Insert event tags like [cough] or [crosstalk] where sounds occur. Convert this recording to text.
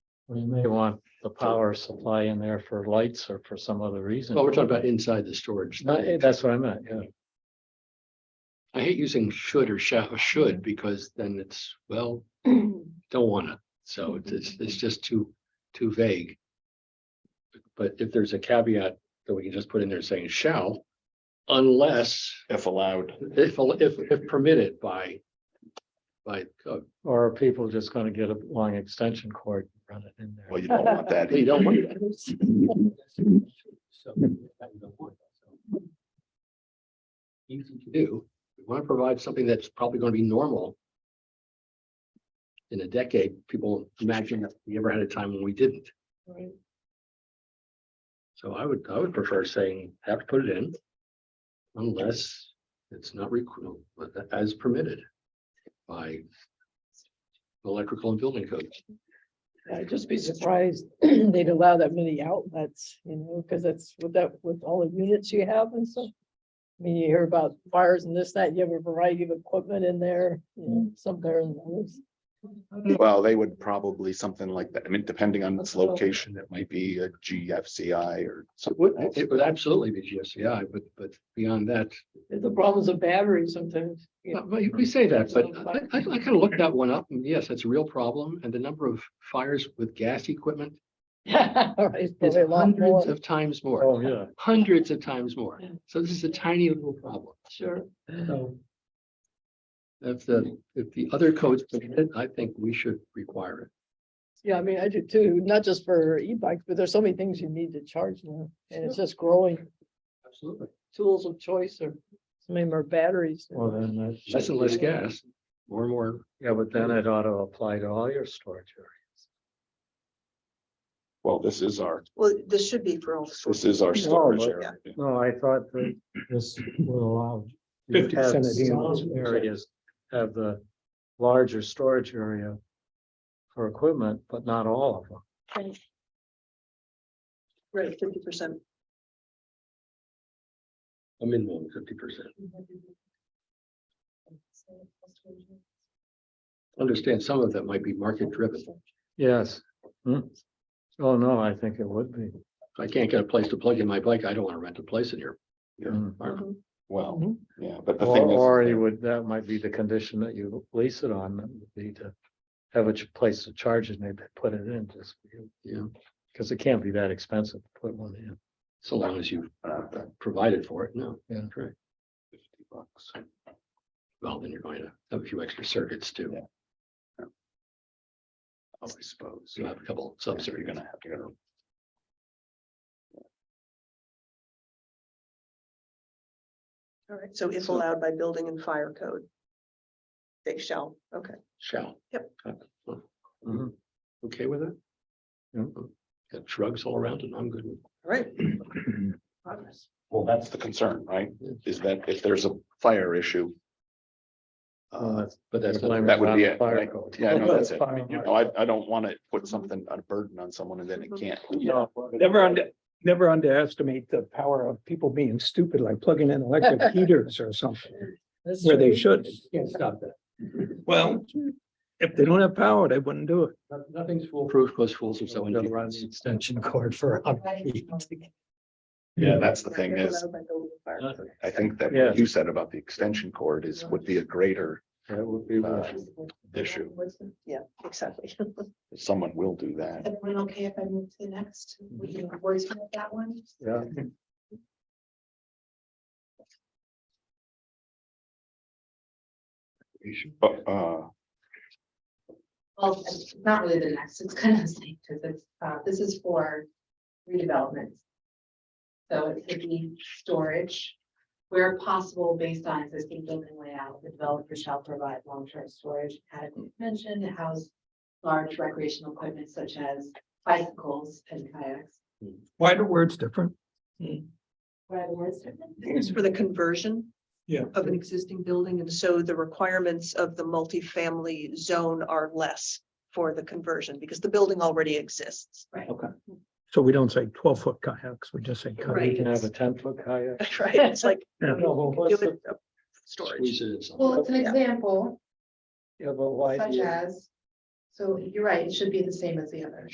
We may want the power supply in there for lights or for some other reason. Well, we're talking about inside the storage. No, eh, That's what I meant, yeah. I hate using should or shall, should, because then it's, well, don't wanna, so it's- it's, it's just too, too vague. But if there's a caveat that we can just put in there saying shall, unless, if allowed. if, if, if permitted by. By, code. Or are people just gonna get a long extension cord, and run it in there? Well, you don't [laughs] want that. you don't want. Easy to do, we wanna provide something that's probably gonna be normal. In a decade, people imagine that we ever had a time when we didn't. Right. So I would, I would prefer saying, have to put it in. Unless it's not requ- but tha- as permitted by. Electrical and building codes. I'd just be surprised [clears throat] they'd allow that many outlets, you know, because that's with that, with all the units you have and stuff. I mean, you hear about fires and this, that, you have a variety of equipment in there, you Mm. know, some there and others. Well, they would probably something like that. I mean, depending on its location, it might be a GFCI or It something. would, else. it would absolutely be GFCI, but, but beyond that, The problems of batteries sometimes. you know. [laughs] Well, you- we say that, Uh, but I, I kind of looked that one up, and yes, that's a real problem, and the number of fires with gas equipment All right, it's is probably a lot hundreds more, of times more, Oh, yeah, hundreds of times more. Yeah. So this is a tiny little problem. Sure. So If the, if the other codes, permit it, I think we should require Yeah, I mean, I do too, not just for e-bikes, but there's so many things you need to charge now, and it's just growing. it. Absolutely. Tools of choice or some of them are batteries. well, then that's. Less and less gas, more and more. Yeah, but then it ought to apply to all your storage areas. Well, this is our, Well, this should be for all sorts. this is our storage but- area. No, I thought that this will allow. you 50 to have cent a deal. some Areas have the larger storage area for equipment, but not all of them. Right, fifty percent. A minimum fifty percent. Understand some of that might be market driven. Yes. Hmm. Oh, no, I think it would be. If I can't get a place to plug in my bike, I don't want to rent a place in here. Hmm. Mm-hmm. Well, yeah, but the Mm-hmm. Or, thing is. uh, or you would, that might be the condition that you lease it on, that would be to have a ch- place to charge it, maybe put it in just. for you. Yeah. Cause it can't be that expensive to put one in. So long as you uh, that provided for it, no. Yeah. Correct. 50 bucks. Well, then you're going to have a few extra circuits too. Yeah. Oh, I suppose. So you have a couple So sub you're circuits. gonna have to go. All right, so if So- allowed by building and fire code. They shall, okay. Shall. Yep. Mhm. Mm-hmm. Okay with that? Yeah. Got shrugs all around and I'm good. with All right. Well, that's the concern, right? Yeah. Is that if there's a fire issue. Oh, Uh, that's- But that's. not- blame that would on be the it, fire right? code. yeah, I know that's it. Fire You know, marshal. I, I don't want to put something, a burden on someone and then it can't. No, Never under, never underestimate the power of people being stupid, like plugging in electric heaters or something That's where they true. should. Can't stop that. Well, if they don't have power, they wouldn't do it. No- Nothing's foolproof, because fools are so. Gotta run the ingenious. Extension cord for. um, a hundred feet. Yeah, that's the Yeah, thing if is, allowed by building and fire Uh, code. I think that Yeah. what you said about the extension cord is, would be a greater That would be. uh, issue. Yeah, exactly. Someone will do that. [laughs] Everyone okay if I move to the next? We can voice note that one. Yeah, But, uh, Well, it's not really the next, it's kind of the same, because it's, uh, this is for redevelopment. So it could be storage, where possible based on existing building layout, the developer shall provide long-term storage adequate dimension to house large recreational equipment such as bicycles and kayaks. Why the words different? What are the words different? It's for the conversion. Yeah. Of an existing building, and so the requirements of the multifamily zone are less for the conversion, because the building already exists. So we don't say twelve foot kayaks, we just say you kayaks. can have a ten foot kayak. Right, it's like. Yeah. [laughs] No, but what's you could do the- it, uh, Storage. Squeeze it in somewhere. Well, it's an example Yeah, but why? do such you- as, so you're right, it should be the same as the others.